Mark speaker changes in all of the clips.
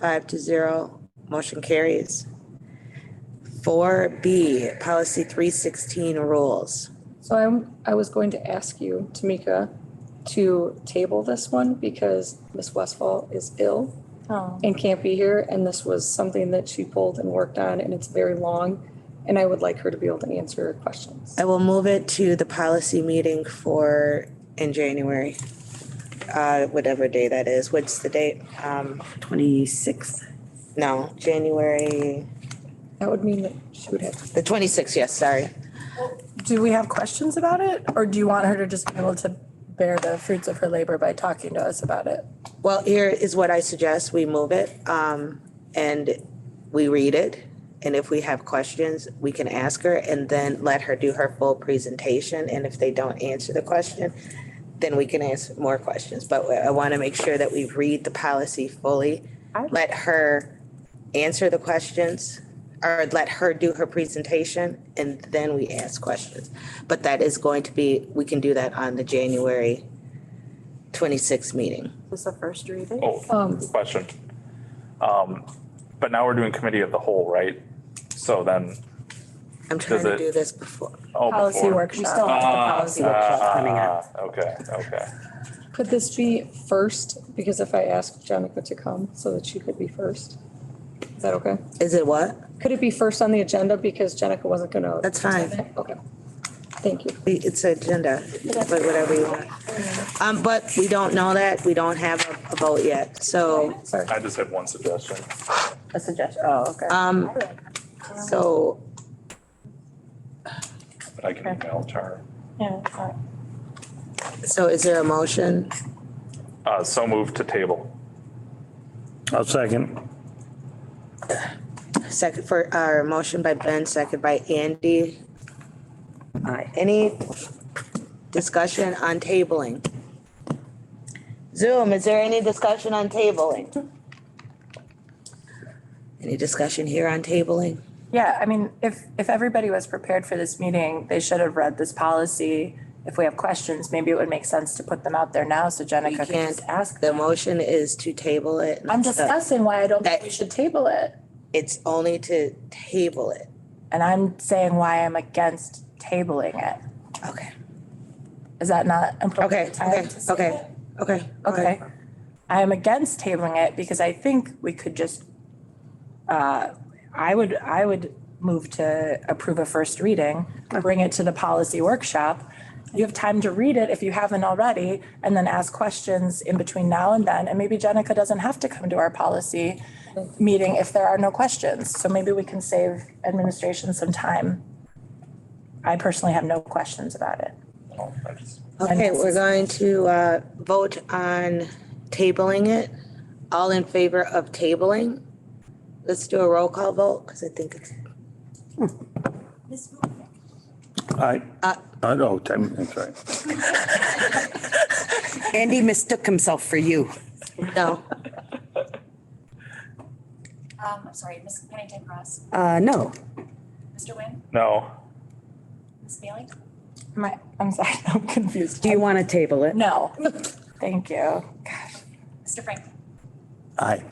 Speaker 1: Five to zero, motion carries. Four B, policy three sixteen rules.
Speaker 2: So I'm, I was going to ask you, Tamika, to table this one because Miss Westfall is ill
Speaker 3: Oh,
Speaker 2: and can't be here. And this was something that she pulled and worked on and it's very long. And I would like her to be able to answer questions.
Speaker 1: I will move it to the policy meeting for, in January. Uh, whatever day that is. What's the date? Um,
Speaker 4: Twenty-sixth.
Speaker 1: no, January,
Speaker 2: That would mean that she would have,
Speaker 1: the twenty-sixth, yes, sorry.
Speaker 3: do we have questions about it or do you want her to just be able to bear the fruits of her labor by talking to us about it?
Speaker 1: Well, here is what I suggest, we move it, um, and we read it. And if we have questions, we can ask her and then let her do her full presentation. And if they don't answer the question, then we can ask more questions. But I want to make sure that we read the policy fully. Let her answer the questions or let her do her presentation and then we ask questions. But that is going to be, we can do that on the January twenty-sixth meeting.
Speaker 5: This the first reading?
Speaker 2: Um,
Speaker 6: Oh, good question. Um, but now we're doing committee of the whole, right? So then,
Speaker 1: I'm trying
Speaker 6: Does
Speaker 1: to
Speaker 6: it-
Speaker 1: do this before.
Speaker 6: oh,
Speaker 3: Policy
Speaker 6: before.
Speaker 4: We still
Speaker 3: workshop.
Speaker 4: have the policy workshop coming up.
Speaker 6: Ah, okay, okay.
Speaker 2: could this be first? Because if I asked Jenica to come so that she could be first, is that okay?
Speaker 1: Is it what?
Speaker 2: Could it be first on the agenda because Jenica wasn't gonna?
Speaker 1: That's fine.
Speaker 2: Okay, thank you.
Speaker 1: We- It's an agenda, but whatever you want. Um, but we don't know that. We don't have a- a vote yet. So,
Speaker 2: Sorry.
Speaker 6: I just had one suggestion.
Speaker 4: A suggestion, oh, okay.
Speaker 1: um, so
Speaker 6: but I can email to her.
Speaker 3: Yeah, it's not-
Speaker 1: so is there a motion?
Speaker 6: Uh, so move to table.
Speaker 7: I'll second.
Speaker 1: Second for our motion by Ben, second by Andy.
Speaker 4: Aye.
Speaker 1: Any discussion on tabling? Zoom, is there any discussion on tabling? Any discussion here on tabling?
Speaker 3: Yeah, I mean, if, if everybody was prepared for this meeting, they should have read this policy. If we have questions, maybe it would make sense to put them out there now so
Speaker 1: We
Speaker 3: Jenica can
Speaker 1: can't
Speaker 3: just ask.
Speaker 1: ask, the motion is to table it.
Speaker 3: I'm discussing why I don't think we should table it.
Speaker 1: It's only to table it.
Speaker 3: And I'm saying why I'm against tabling it.
Speaker 1: Okay.
Speaker 3: Is that not
Speaker 1: Okay,
Speaker 3: appropriate
Speaker 1: okay,
Speaker 3: time to say
Speaker 1: okay,
Speaker 3: it?
Speaker 1: okay.
Speaker 3: Okay. I am against tabling it because I think we could just, uh, I would, I would move to approve a first reading, bring it to the policy workshop. You have time to read it if you haven't already, and then ask questions in between now and then. And maybe Jenica doesn't have to come to our policy meeting if there are no questions. So maybe we can save administration some time. I personally have no questions about it.
Speaker 6: Oh, I just-
Speaker 1: Okay, we're going to uh, vote on tabling it. All in favor of tabling? Let's do a roll call vote, because I think it's,
Speaker 7: I, I, oh, I'm I'm sorry.
Speaker 4: Andy mistook himself for you.
Speaker 1: no,
Speaker 8: Um, I'm sorry, Ms. Pennington Cross,
Speaker 4: Uh, no,
Speaker 8: Mr. Nguyen,
Speaker 6: No,
Speaker 8: Ms. Bailey,
Speaker 3: My, I'm sorry, I'm confused.
Speaker 4: do you want to table it?
Speaker 3: No, thank you.
Speaker 8: Mr. Franklin.
Speaker 7: Aye.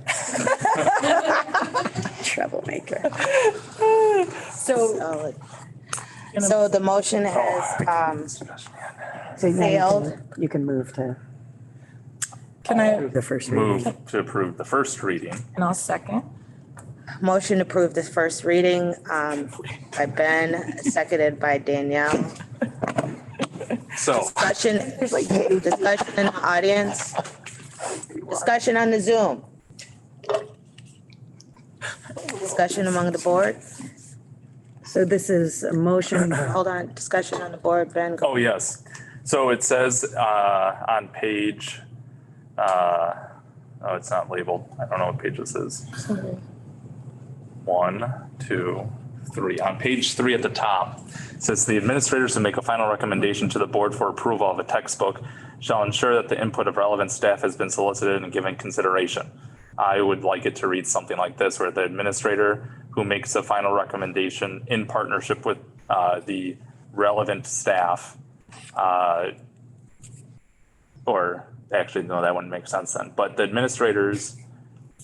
Speaker 4: Troublemaker.
Speaker 3: So
Speaker 1: solid. So the motion has um,
Speaker 4: So now you can-
Speaker 1: Failed.
Speaker 4: You can move to
Speaker 3: can I,
Speaker 4: the first reading.
Speaker 6: move to approve the first reading.
Speaker 3: and I'll second.
Speaker 1: Motion to approve this first reading um, by Ben, seconded by Danielle.
Speaker 6: So,
Speaker 1: Discussion, discussion in the audience. Discussion on the Zoom. Discussion among the board.
Speaker 4: So this is a motion,
Speaker 1: Hold on, discussion on the board, Ben. go-
Speaker 6: oh, yes. So it says, uh, on page, uh, oh, it's not labeled. I don't know what page this is. one, two, three. On page three at the top, it says the administrators to make a final recommendation to the board for approval of a textbook shall ensure that the input of relevant staff has been solicited and given consideration. I would like it to read something like this, where the administrator who makes a final recommendation in partnership with uh, the relevant staff uh, or actually, no, that wouldn't make sense then, but the administrators